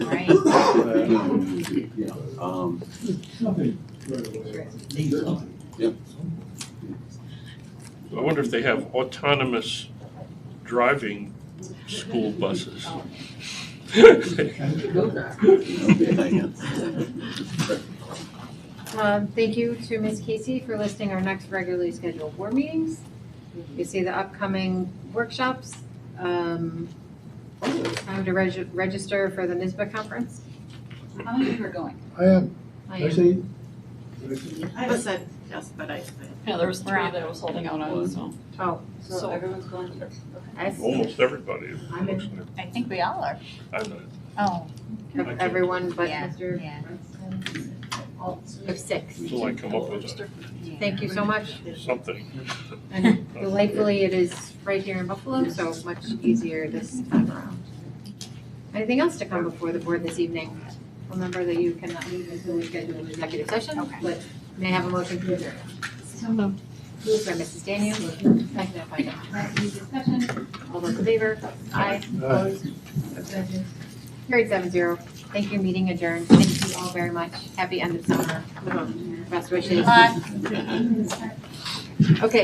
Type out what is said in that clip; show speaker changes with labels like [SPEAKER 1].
[SPEAKER 1] Nothing right away.
[SPEAKER 2] I wonder if they have autonomous driving school buses.
[SPEAKER 3] Oh.
[SPEAKER 4] Um, Thank you to Ms. Casey for listing our next regularly scheduled board meetings. You see the upcoming workshops. um, Time to reg- register for the NISBA conference.
[SPEAKER 5] How many of you are going?
[SPEAKER 1] I am,
[SPEAKER 4] I am-
[SPEAKER 1] actually,
[SPEAKER 6] I was said yes, but I, I-
[SPEAKER 7] Yeah, there was three
[SPEAKER 4] We're out.
[SPEAKER 7] that I was holding out on, so.
[SPEAKER 4] Oh,
[SPEAKER 5] Mm-hmm. So everyone's going?
[SPEAKER 4] I s-
[SPEAKER 2] Almost everybody. it
[SPEAKER 4] I'm in-
[SPEAKER 2] looks like.
[SPEAKER 3] I think we all are.
[SPEAKER 2] I know.
[SPEAKER 3] Oh,
[SPEAKER 4] ev- everyone but
[SPEAKER 3] Yeah,
[SPEAKER 4] Mr.
[SPEAKER 3] yeah.
[SPEAKER 4] We have six.
[SPEAKER 2] Until I come up with a-
[SPEAKER 4] Thank you so much.
[SPEAKER 2] something.
[SPEAKER 4] And delightfully, it is right here in Buffalo, so much easier this time around. Anything else to come before the board this evening? Remember that you cannot leave until we schedule an executive session,
[SPEAKER 3] Okay.
[SPEAKER 4] but may I have a motion to adjourn? Moved by Mrs. Daniels, seconded by Dr. Pratt. Any discussion? All those in favor? Aye.
[SPEAKER 1] uh,
[SPEAKER 4] Opposed? Abstentions? Carried seven zero. Thank you, meeting adjourned. Thank you all very much. Happy end of summer. Best wishes.
[SPEAKER 3] Bye.
[SPEAKER 4] Okay.